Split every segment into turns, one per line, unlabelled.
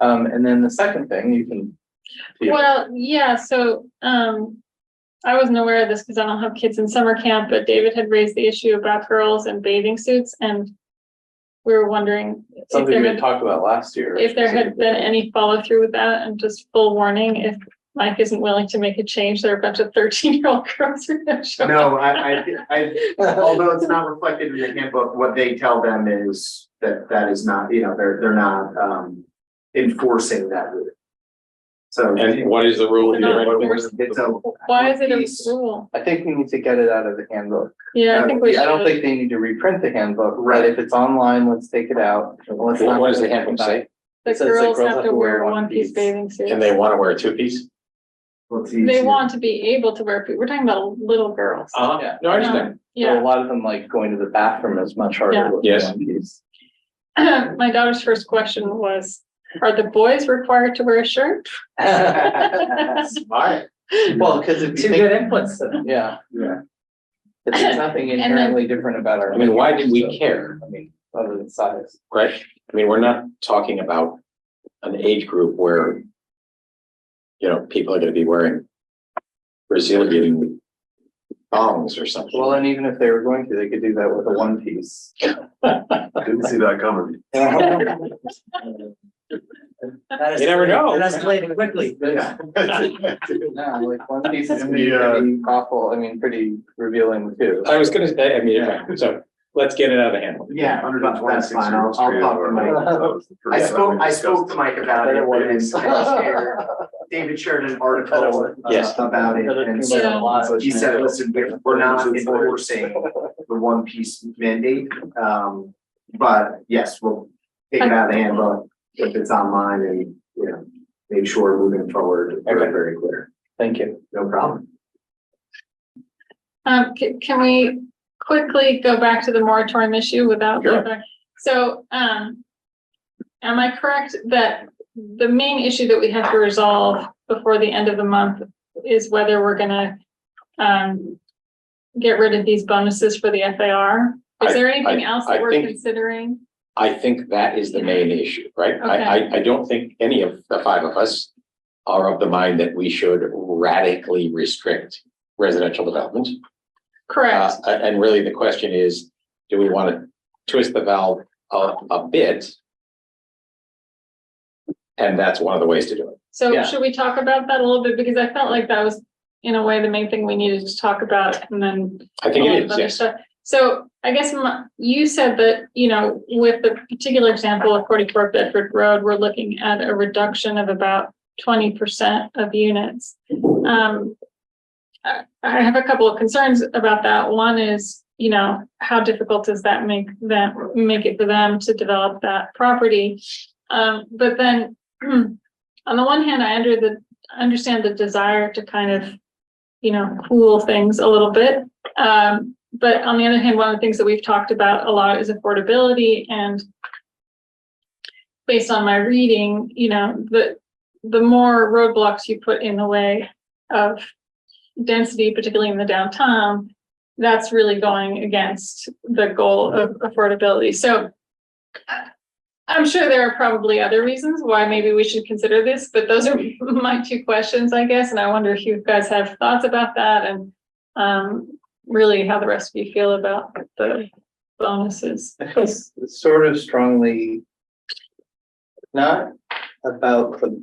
Um, and then the second thing you can. see.
Well, yeah, so, um, I wasn't aware of this because I don't have kids in summer camp, but David had raised the issue about girls in bathing suits and we were wondering if
Something
there
we had
had,
talked about last year.
if there had been any follow through with that and just full warning, if Mike isn't willing to make a change, there are a bunch of thirteen year old girls who are gonna show up.
No, I, I, I, although it's not reflected in the handbook, what they tell them is that that is not, you know, they're, they're not, um, enforcing that rule. So
And what is the rule?
We're not
here?
enforcing-
it's a,
Why is it
Piece.
a rule?
I think we need to get it out of the handbook. Uh,
Yeah, I think we should.
I don't think they need to reprint the handbook, but
Right.
if it's online, let's take it out. and let's
What
not-
what does the handbook say?
The
it says that
girls have to wear one piece
piece.
bathing suits.
And they want to wear a two-piece?
let's see.
They want to be able to wear, we're talking about little girls.
Uh-huh. No, I understand.
Um,
So
Yeah.
A lot of them like going to the bathroom is much harder.
Yeah.
with
Yes.
one piece.
My daughter's first question was, are the boys required to wear a shirt? Um,
Alright.
Well, because if you think,
inputs.
yeah,
Yeah,
it's there's nothing
then-
inherently different about our.
I mean, why did
so,
we care?
I mean, other than size.
Right? I mean, we're not talking about an age group where, you know, people are gonna be wearing Brazilian thongs or something.
Well, and even if they were going to, they could do that with a one piece.
didn't see that coming.
You
You never know.
That's escalated quickly.
Yeah. No, like one piece is
In
pretty
the, uh,
pretty awful, I mean, pretty revealing too.
I was gonna say, I mean, okay, so let's get it out of hand.
Yeah, but that's fine, I'll, I'll talk to Mike. I spoke, I spoke to Mike about it,
Better one
and
piece.
last year, David shared an
uh,
article uh,
Yes.
about it, and so Uh, he said, listen, we're, we're not enforcing the one piece mandate. Um, but yes, we'll take it out of the handbook if it's online and, you know, make sure moving forward, we're very clear.
Thank you.
No problem.
Um, can, can we quickly go back to the moratorium issue without?
Sure.
So, um, am I correct that the main issue that we have to resolve before the end of the month is whether we're gonna, um, get rid of these bonuses for the FAR? Is
I-
there anything else
I
that we're
think-
considering?
I think that is the main issue, right? I, I, I don't think any of the five of us are of the mind that we should radically restrict residential development.
Correct.
Uh, a- and really the question is, do we want to twist the valve a, a bit? And that's one of the ways to do it.
So
Yeah.
should we talk about that a little bit? Because I felt like that was, in a way, the main thing we needed to talk about and then.
I think
all of
it is,
other
yes.
stuff. So I guess my- you said that, you know, with the particular example of forty-four Bedford Road, we're looking at a reduction of about twenty percent of units. Um, I I have a couple of concerns about that. One is, you know, how difficult does that make them, make it for them to develop that property? Um, but then, on the one hand, I under the, understand the desire to kind of, you know, cool things a little bit. Um, but on the other hand, one of the things that we've talked about a lot is affordability and based on my reading, you know, the, the more roadblocks you put in the way of density, particularly in the downtown, that's really going against the goal of affordability. So uh, I'm sure there are probably other reasons why maybe we should consider this, but those are my two questions, I guess. And I wonder if you guys have thoughts about that and um, really how the rest of you feel about the bonuses.
I feel s- sort of strongly not about the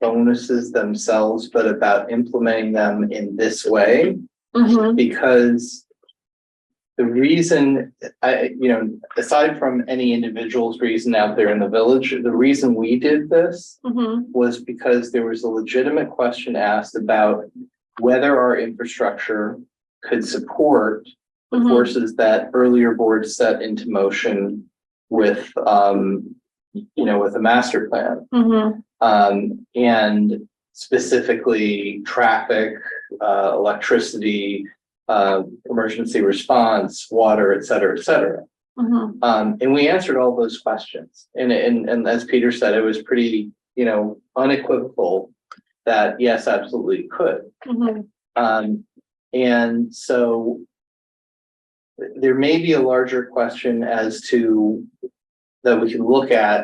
bonuses themselves, but about implementing them in this way. Mm-hmm. because the reason, I, you know, aside from any individual's reason out there in the village, the reason we did this
Mhm.
was because there was a legitimate question asked about whether our infrastructure could support the
Mhm.
forces that earlier boards set into motion with, um, you know, with the master plan.
Mhm.
Um, and specifically traffic, uh, electricity, uh, emergency response, water, et cetera, et cetera.
Mhm.
Um, and we answered all those questions. And, and, and as Peter said, it was pretty, you know, unequivocal that yes, absolutely could.
Mhm.
Um, and so th- there may be a larger question as to that we can look at